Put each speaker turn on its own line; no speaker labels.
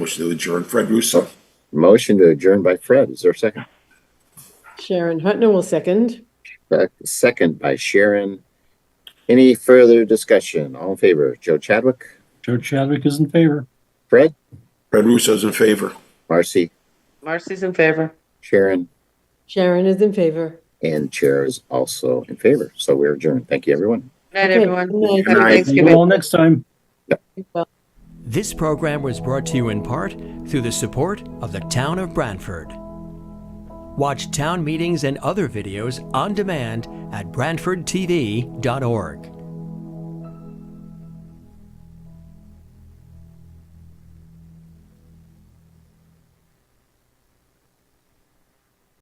Motion to adjourn, Fred Russo.
Motion to adjourn by Fred. Is there a second?
Sharon Hutner will second.
Uh, Second by Sharon. Any further discussion? All in favor? Joe Chadwick,
Joe Chadwick is in favor.
Fred,
Fred Russo's in favor.
Marcy,
Marcy's in favor.
Sharon,
Sharon is in favor.
and Chair is also in favor. So we're adjourned. Thank you, everyone.
Good night,
Okay,
everyone.
good night.
Happy
Good night.
See you
Thanksgiving.
all next time.
This program was brought to you in part through the support of the Town of Brantford. Watch town meetings and other videos on demand at BrantfordTV.org.